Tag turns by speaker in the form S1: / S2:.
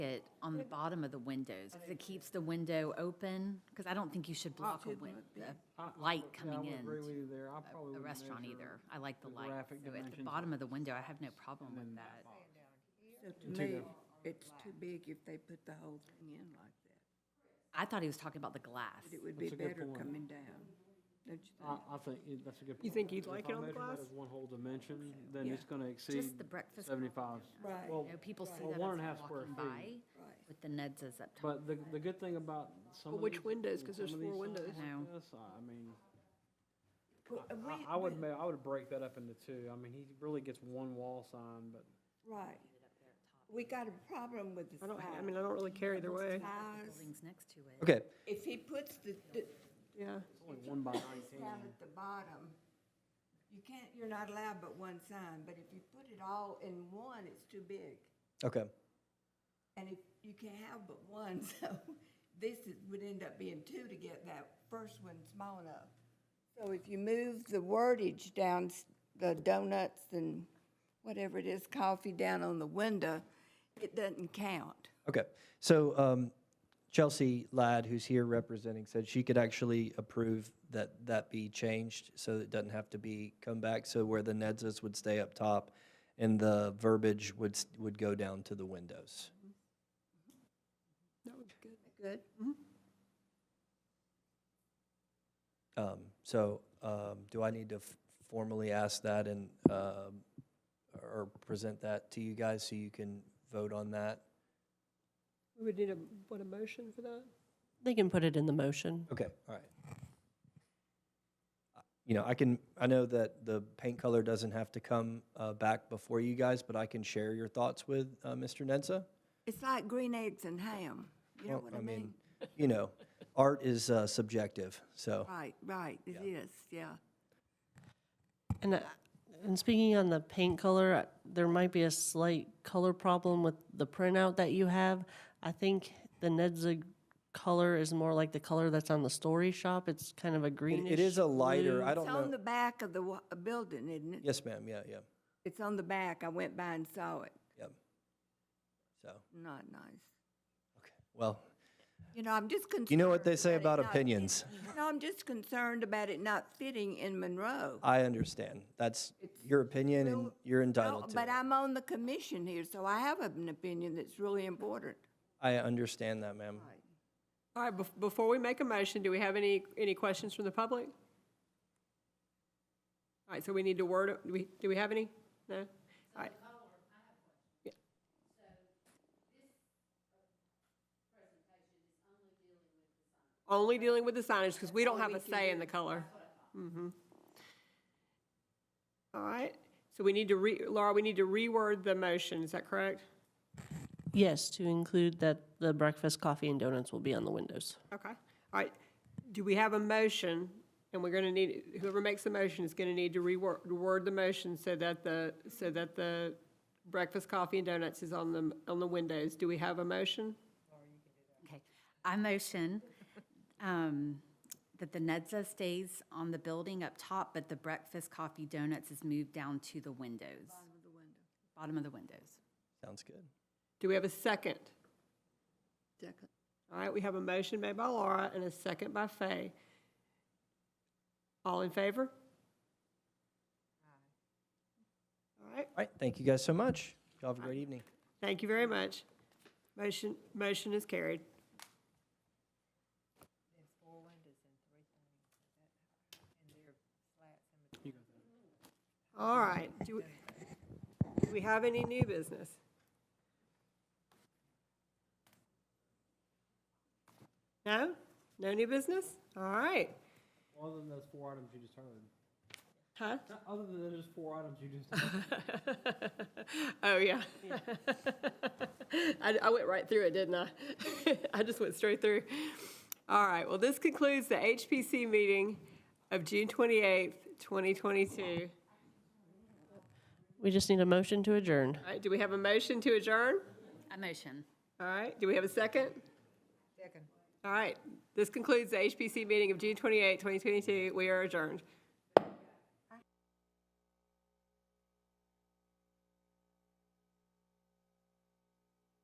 S1: on the bottom of the windows, 'cause it keeps the window open, because I don't think you should block a
S2: it
S1: win,
S2: might be.
S1: a
S2: I- I
S1: Uh, light
S2: would- yeah,
S1: coming
S2: I would agree with
S1: in
S2: you there. I
S1: a-
S2: probably
S1: a
S2: would
S1: restaurant
S2: measure
S1: either. I like the
S2: the
S1: light.
S2: graphic
S1: So At the
S2: dimensions
S1: bottom of the window, I have no problem with
S2: then
S1: that.
S3: So to me, it's too big if they put the whole thing in like that.
S1: I thought he was talking about the glass.
S3: It would be
S2: That's a good
S3: better
S2: point.
S3: coming down, don't you
S2: I,
S4: Uh,
S3: think?
S2: I think it- that's a good point.
S4: You think you'd like it on the
S2: If I measure
S4: glass?
S2: that as one whole dimension, then
S3: Yeah.
S2: it's gonna exceed
S1: Just the breakfast.
S2: seventy-five.
S3: Right.
S2: Well,
S1: You know, people see
S2: Well,
S1: that as
S2: one and a half square
S1: walking by
S2: feet.
S3: Right.
S1: with the Nedses up top.
S2: but the, the good thing about some
S4: But
S2: of
S4: which
S2: these-
S4: windows?
S2: and
S4: 'Cause there's
S2: some of these
S4: four
S2: signs
S4: windows.
S2: like
S1: I know.
S2: this, I- I mean,
S3: Well, uh,
S2: I-
S3: we-
S2: I would,
S3: we-
S2: ma- I would break that up into two. I mean, he really gets one wall sign, but
S3: Right. We got a problem with the
S4: I don't, ha- I
S3: size.
S4: mean, I don't really care either way.
S3: Size,
S1: Buildings next to it.
S5: Okay,
S3: if he puts the, the,
S4: Yeah,
S2: it's only one by nineteen.
S3: down at the bottom, you can't, you're not allowed but one sign, but if you put it all in one, it's too big.
S5: okay.
S3: And if, you can't have but one, so this is, would end up being two to get that first one small enough. So if you move the wordage down, s- the donuts and whatever it is, coffee down on the window, it doesn't count.
S5: Okay, so um, Chelsea Ladd, who's here representing, said she could actually approve that that be changed so it doesn't have to be come back. So where the NEDs would stay up top and the verbiage would, s- would go down to the windows.
S4: that would be good.
S3: Good.
S5: Um, So um, do I need to f- formally ask that and, um, or present that to you guys so you can vote on that?
S4: We would need a, what, a motion for that?
S6: They can put it in the motion.
S5: Okay, all right. You know, I can, I know that the paint color doesn't have to come uh, back before you guys, but I can share your thoughts with uh, Mr. Nenza.
S3: It's like green eggs and ham, you know
S5: Well,
S3: what I mean?
S5: You know, art is uh, subjective, so,
S3: Right, right, it is, yeah.
S6: And, uh, and speaking on the paint color, uh, there might be a slight color problem with the printout that you have. I think the Nedzig color is more like the color that's on the story shop. It's kind of a
S5: it
S6: greenish.
S5: it is a lighter, I
S3: It's
S5: don't
S3: on
S5: know.
S3: the back of the wa- uh, building, isn't it?
S5: Yes, ma'am, yeah, yeah,
S3: It's on the back, I went by and saw it,
S5: yep. So,
S3: not nice.
S5: okay, well,
S3: You know, I'm just concerned.
S5: you know what they say
S3: about
S5: about
S3: it not fit-
S5: opinions.
S3: No, I'm just concerned about it not fitting in Monroe.
S5: I understand. That's your opinion and you're
S3: No,
S5: entitled to
S3: But
S5: it.
S3: I'm on the commission here, so I have an opinion that's really important.
S5: I understand that, ma'am.
S4: All right, bef- before we make a motion, do we have any, any questions from the public? All right, so we need to word, it- do we, do we have any? No? All right. Yeah. Only dealing with the signage, because we don't have a say in the color. Mhm. All right, so we need to re, Laura, we need to reword the motion, is that correct?
S6: Yes, to include that the breakfast, coffee, and donuts will be on the windows.
S4: Okay, all right. Do we have a motion? And we're gonna need, whoever makes the motion is gonna need to reword, word the motion so that the, so that the breakfast, coffee, and donuts is on the, on the windows. Do we have a motion?
S1: Okay, I motion um, that the Nedza stays on the building up top, but the breakfast, coffee, donuts is moved down to the windows. Bottom of the windows.
S5: Sounds good.
S4: Do we have a second?
S3: Second.
S4: All right, we have a motion made by Laura and a second by Fay. All in favor? All right,
S5: All right, thank you guys so much. Y'all have a great evening.
S4: thank you very much. Motion, motion is carried. All right, do, we- do we have any new business? No? No new business? All right,
S2: Other than those four items you just heard.
S4: huh?
S2: Other than those four items you just
S4: Oh, yeah. I, I went right through it, didn't I? I just went straight through. All right, well, this concludes the HPC meeting of June 28th, 2022.
S6: We just need a motion to adjourn.
S4: All right, do we have a motion to adjourn?
S1: I motion.
S4: All right, do we have a second? Second. All right, this concludes the HPC meeting of June 28th, 2022. We are adjourned.